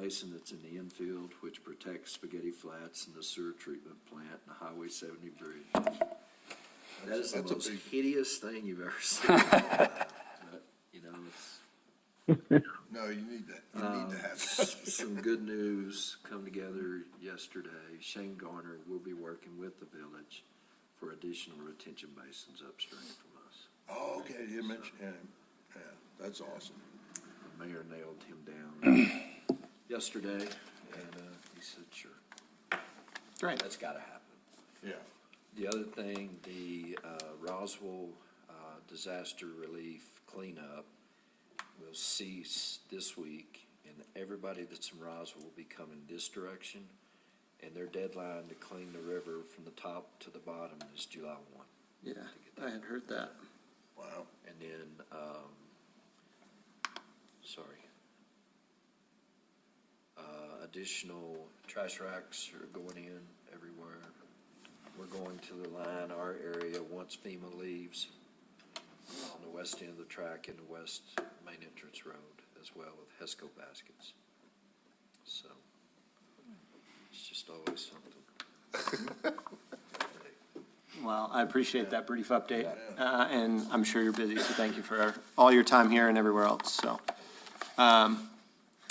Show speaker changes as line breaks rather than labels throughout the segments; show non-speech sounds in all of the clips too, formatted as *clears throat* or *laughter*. basin that's in the infield, which protects Spaghetti Flats and the sewer treatment plant and the Highway seventy bridge. That is the
That's a
most
big-
hideous thing you've
*laughs*
ever seen. But, You know, it's,
No, you need that, you need
um, *laughs*
to have that.
some good news come together yesterday. Shane Garner will be working with the village for additional retention basins upstream from us.
Oh, okay, you mentioned him. Yeah, that's awesome.
The mayor nailed him down
*clears throat*
yesterday, and uh, he said, sure.
Great.
That's got to happen.
Yeah.
The other thing, the uh, Roswell uh, disaster relief cleanup will cease this week, and everybody that's in Roswell will be coming this direction, and their deadline to clean the river from the top to the bottom is July 1.
Yeah, I had heard that.
Wow.
And then, um, sorry. Uh, additional trash racks are going in everywhere. We're going to the line, our area, once FEMA leaves, on the west end of the track and the west main entrance road as well with HESCO baskets. So, it's just always something.
Well, I appreciate that brief update,
Yeah.
uh, and I'm sure you're busy, so thank you for all your time here and everywhere else, so. Um,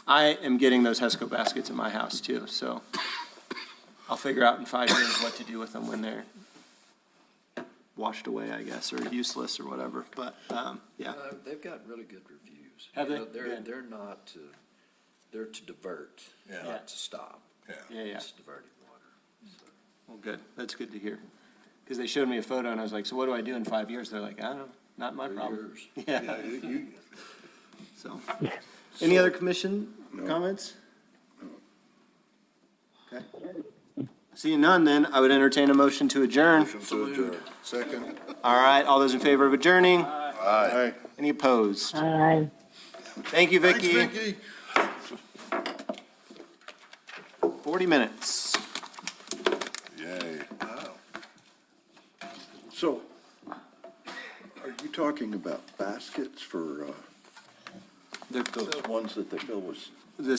I am getting those HESCO baskets in my house too, so I'll figure out in five years what to do with them when they're washed away, I guess, or useless or whatever, but, um, yeah.
Uh, They've got really good reviews.
Have
You
they?
know, They're,
Good.
they're not to, they're to divert,
Yeah.
not to stop.
Yeah, yeah.
It's diverted water. so.
Well, good, that's good to hear. Because they showed me a photo and I was like, so what do I do in five years? They're like, I don't know, not my
They're
problem.
yours.
*laughs* Yeah,
Yeah, you, you,
so. Any other commission comments? Okay. Seeing none, then I would entertain a motion to adjourn.
motion to adjourn. Second?
All right, all those in favor of adjourning?
Aye.
Any opposed?
Aye.
Thank you,
Thanks,
Vicky.
Vicky.
40 minutes.
Yay.
Wow.
So, are you talking about baskets for, uh,
They're
those ones that they fill with